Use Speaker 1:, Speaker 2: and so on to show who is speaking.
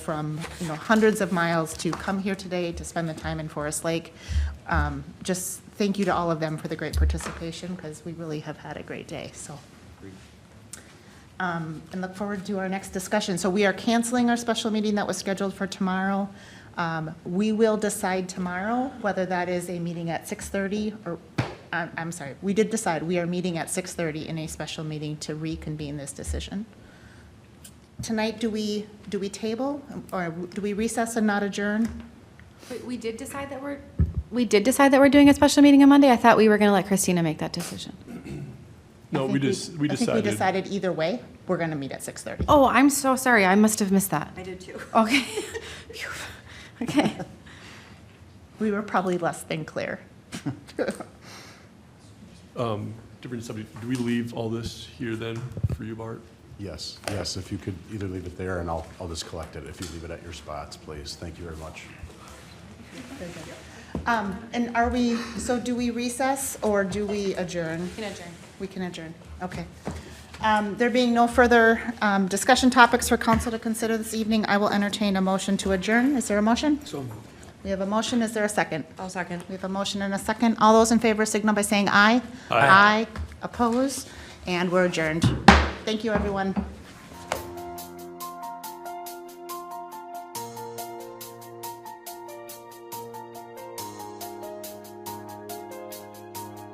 Speaker 1: from, you know, hundreds of miles to come here today to spend the time in Forest Lake. Um, Just thank you to all of them for the great participation, because we really have had a great day, so. Um, And look forward to our next discussion. So we are canceling our special meeting that was scheduled for tomorrow. Um, We will decide tomorrow whether that is a meeting at 6:30 or, I'm I'm sorry, we did decide, we are meeting at 6:30 in a special meeting to reconvene this decision. Tonight, do we, do we table, or do we recess and not adjourn?
Speaker 2: But we did decide that we're, we did decide that we're doing a special meeting on Monday. I thought we were going to let Christina make that decision.
Speaker 1: I
Speaker 3: No, we
Speaker 1: think
Speaker 3: just, we
Speaker 1: I think we
Speaker 3: decided.
Speaker 1: decided either way, we're going to meet at 6:30.
Speaker 2: Oh, I'm so sorry. I must have missed that.
Speaker 4: I did too.
Speaker 2: Okay. Phew. Okay.
Speaker 1: We were probably less than clear.
Speaker 3: um, Different subject. Do we leave all this here then for you, Bart?
Speaker 5: Yes, yes, if you could either leave it there and I'll, I'll just collect it. If you leave it at your spots, please. Thank you very much.
Speaker 1: Um, And are we, so do we recess or do we adjourn? We can adjourn. We can adjourn, okay. Um, There being no further um, discussion topics for council to consider this evening, I will entertain a motion to adjourn. Is there a motion? So moved. We have a motion, is there a second?
Speaker 4: I'll second.
Speaker 1: We have a motion and a second. All those in favor signal by saying aye.
Speaker 3: Aye.
Speaker 1: Aye, oppose, and we're adjourned. Thank you, everyone.